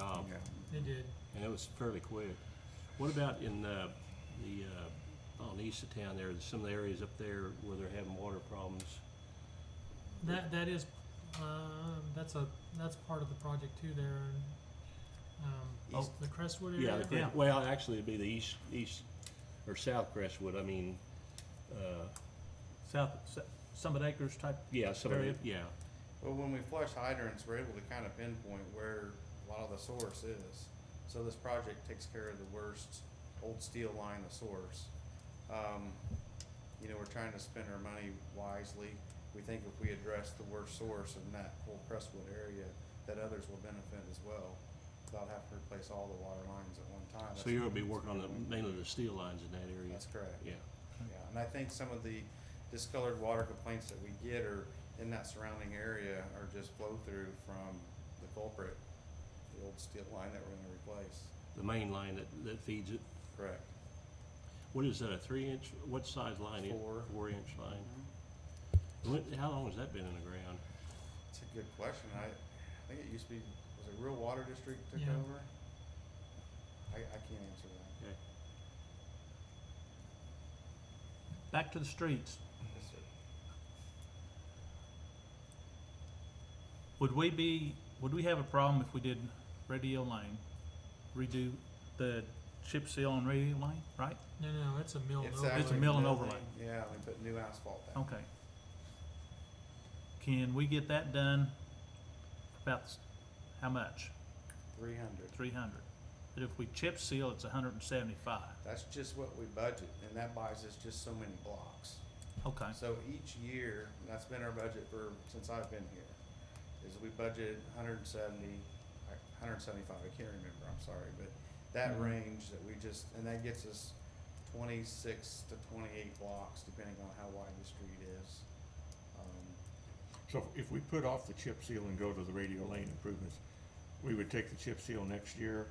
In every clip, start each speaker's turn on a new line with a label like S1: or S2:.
S1: Oh.
S2: They did.
S1: and it was fairly quick. What about in uh, the, uh, on east of town there, some of the areas up there where they're having water problems?
S2: That that is, um, that's a that's part of the project too. There, um,
S1: East-
S2: the Crestwood area.
S1: Oh. Yeah, the
S2: right?
S1: Cre- well, actually, it'd be the east, east, or south Crestwood, I mean, uh,
S3: South, Su- Summit Acres type,
S1: yeah, some of the,
S3: Area.
S4: Oh,
S1: yeah.
S4: Well, when we flush hydrants, we're able to kind of pinpoint where a lot of the source is. So this project takes care of the worst old steel line, the source. Um, you know, we're trying to spend our money wisely. We think if we address the worst source in that whole Crestwood area, that others will benefit as well, without having to replace all the water lines at one time.
S1: So you're gonna be working on the, mainly the steel lines in that area?
S4: That's correct.
S1: Yeah,
S4: Yeah, and I think some of the discolored water complaints that we get are in that surrounding area are just flow through from the culprit, the old steel line that we're gonna replace.
S1: the main line that, that feeds it.
S4: Correct.
S1: What is that, a three inch, what size line? is-
S4: Four.
S1: Four inch line. When, how long has that been in the ground?
S4: It's a good question. I, I think it used to be, was it Real Water District took
S2: Yeah.
S4: over? I, I can't answer that.
S1: Okay.
S3: back to the streets.
S4: Yes, sir.
S3: Would we be, would we have a problem if we did Radio Lane, redo the chip seal on Radio Lane, right?
S2: No, no, it's a mill.
S4: It's
S2: over.
S4: actually
S3: a mill and
S4: new-
S3: overlay. Oh.
S4: Yeah, we put new asphalt down.
S3: Okay. Can we get that done for about, s- how much?
S4: Three hundred.
S3: Three hundred. But if we chip seal, it's hundred and seventy-five.
S4: That's just what we budget, and that buys us just so many blocks.
S3: Okay,
S4: So each year, and that's been our budget for, since I've been here, is we budgeted hundred and seventy, hundred and seventy-five, I can't remember, I'm sorry, but that
S3: Mhm.
S4: range that we just, and that gets us twenty-six to twenty-eight blocks, depending on how wide the street is. Um,
S5: So if- if we put off the chip seal and go to the radio lane improvements, we would take the chip seal next year.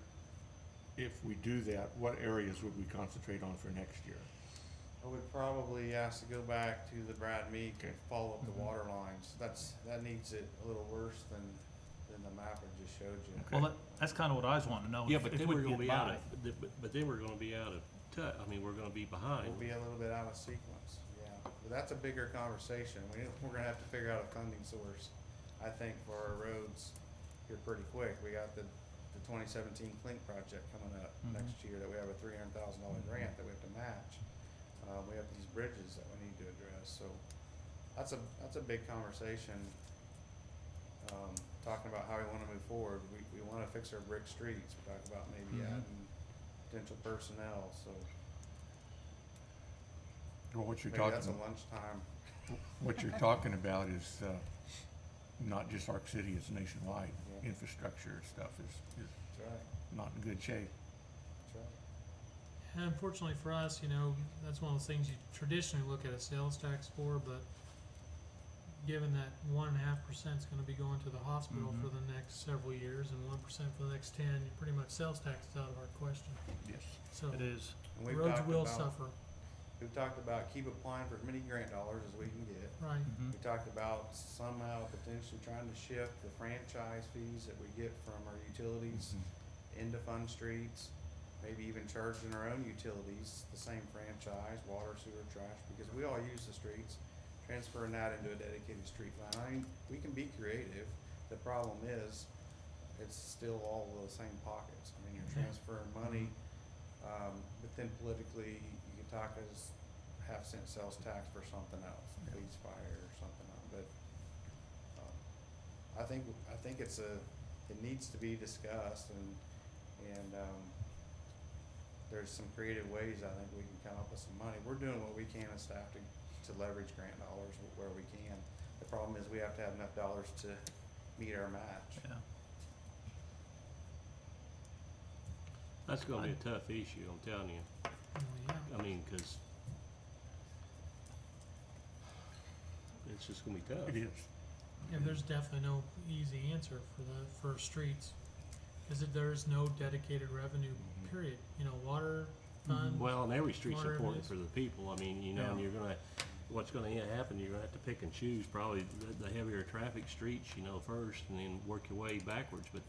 S5: If we do that, what areas would we concentrate on for next year?
S4: I would probably ask to go back to the Brad Meek and
S5: Okay.
S4: follow up the
S3: Mhm.
S4: water lines, that's, that needs it a little worse than, than the map I just showed you.
S3: well, that, that's kinda what I was wanting to know.
S1: Oh, Yeah,
S3: if-
S1: but
S3: if
S1: then
S3: we
S1: we're gonna
S3: get
S1: be out
S3: by.
S1: of, th- but, but then we're gonna be out of tou- I mean, we're gonna be behind.
S4: We'll be a little bit out of sequence, yeah. But that's a bigger conversation. We, we're gonna have to figure out a funding source, I think, for our roads here pretty quick. We got the, the twenty seventeen Clink project coming up
S3: Mhm.
S4: next year that we have a three hundred thousand dollar grant that we have to match. Uh, we have these bridges that we need to address, so that's a, that's a big conversation. Um, talking about how we wanna move forward. We, we wanna fix our brick streets. We talked about maybe
S3: Mhm.
S4: adding potential personnel, so
S5: Well, what you're
S4: maybe that's a
S5: talking,
S4: lunchtime
S5: what you're talking about is, uh, not just Arc City, it's nationwide.
S4: Yeah.
S5: Infrastructure stuff is, is
S4: That's right,
S5: not in good shape.
S4: that's right.
S2: And Unfortunately for us, you know, that's one of those things you traditionally look at a sales tax for, but given that one and a half percent is gonna be going to the hospital
S1: Mm-hmm.
S2: for
S3: Mhm.
S2: the next several years and one percent for the next ten, you pretty much sales tax is out of our question.
S5: Yes.
S2: So
S3: It is,
S4: And we've
S2: roads
S4: talked
S2: will
S4: about-
S2: suffer,
S4: We've talked about keep applying for as many grant dollars as we can get.
S2: right?
S1: Mm.
S3: mhm.
S4: We talked about somehow potentially trying to shift the franchise fees that we get from our utilities into fund streets. Maybe even charging our own utilities, the same franchise, water, sewer, trash, because we all use the streets. Transferring that into a dedicated street line, I mean, we can be creative. The problem is, it's still all the same pockets. I mean, you're
S2: Yeah.
S4: transferring money, um, but then politically, you can talk as half cent sales tax for something else,
S5: Yeah.
S4: police fire or something else, but, um, I think, I think it's a, it needs to be discussed and, and, um, there's some creative ways I think we can come up with some money. We're doing what we can as staff to, to leverage grant dollars wh- where we can. The problem is we have to have enough dollars to meet our match.
S3: yeah.
S1: That's gonna be a tough issue, I'm telling you.
S2: Oh, yeah.
S1: I mean, 'cause it's just gonna be tough.
S5: It is.
S2: Yeah, there's definitely no easy answer for the, for streets, cause if there's no dedicated revenue,
S5: Mhm.
S2: period, you know, water
S3: Mhm.
S2: fund.
S1: Well, and every street's
S2: Water
S1: important
S2: is-
S1: for the people, I mean, you know, and
S3: Yeah.
S1: you're gonna, what's gonna end- happen, you're gonna have to pick and choose probably the, the heavier traffic streets, you know, first, and then work your way backwards, but